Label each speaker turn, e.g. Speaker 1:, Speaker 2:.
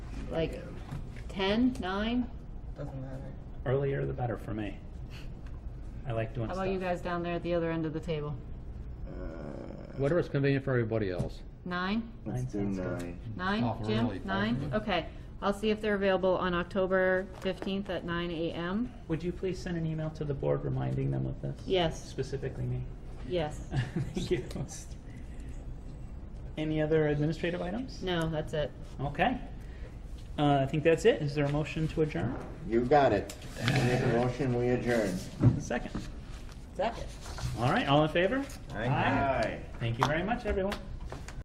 Speaker 1: like ten, nine?
Speaker 2: Doesn't matter.
Speaker 3: Earlier the better for me. I like doing
Speaker 1: How
Speaker 3: stuff.
Speaker 1: about you guys down there at the other end of the table?
Speaker 4: Whatever's convenient for everybody else.
Speaker 1: Nine?
Speaker 5: Let's do nine.
Speaker 1: Nine,
Speaker 4: Oh, we're
Speaker 1: Jim?
Speaker 4: really far
Speaker 1: Nine?
Speaker 4: away.
Speaker 1: Okay. I'll see if they're available on October fifteenth at nine AM.
Speaker 3: Would you please send an email to the board reminding them of this?
Speaker 1: Yes,
Speaker 3: Specifically me.
Speaker 1: yes.
Speaker 3: Thank you. Any other administrative items?
Speaker 1: No, that's it.
Speaker 3: Okay. Uh, I think that's it. Is there a motion to adjourn?
Speaker 5: You got it. I Make a motion, we adjourn.
Speaker 3: Second.
Speaker 2: Second.
Speaker 3: All right, all in favor?
Speaker 5: Aye.
Speaker 3: Thank you very much, everyone.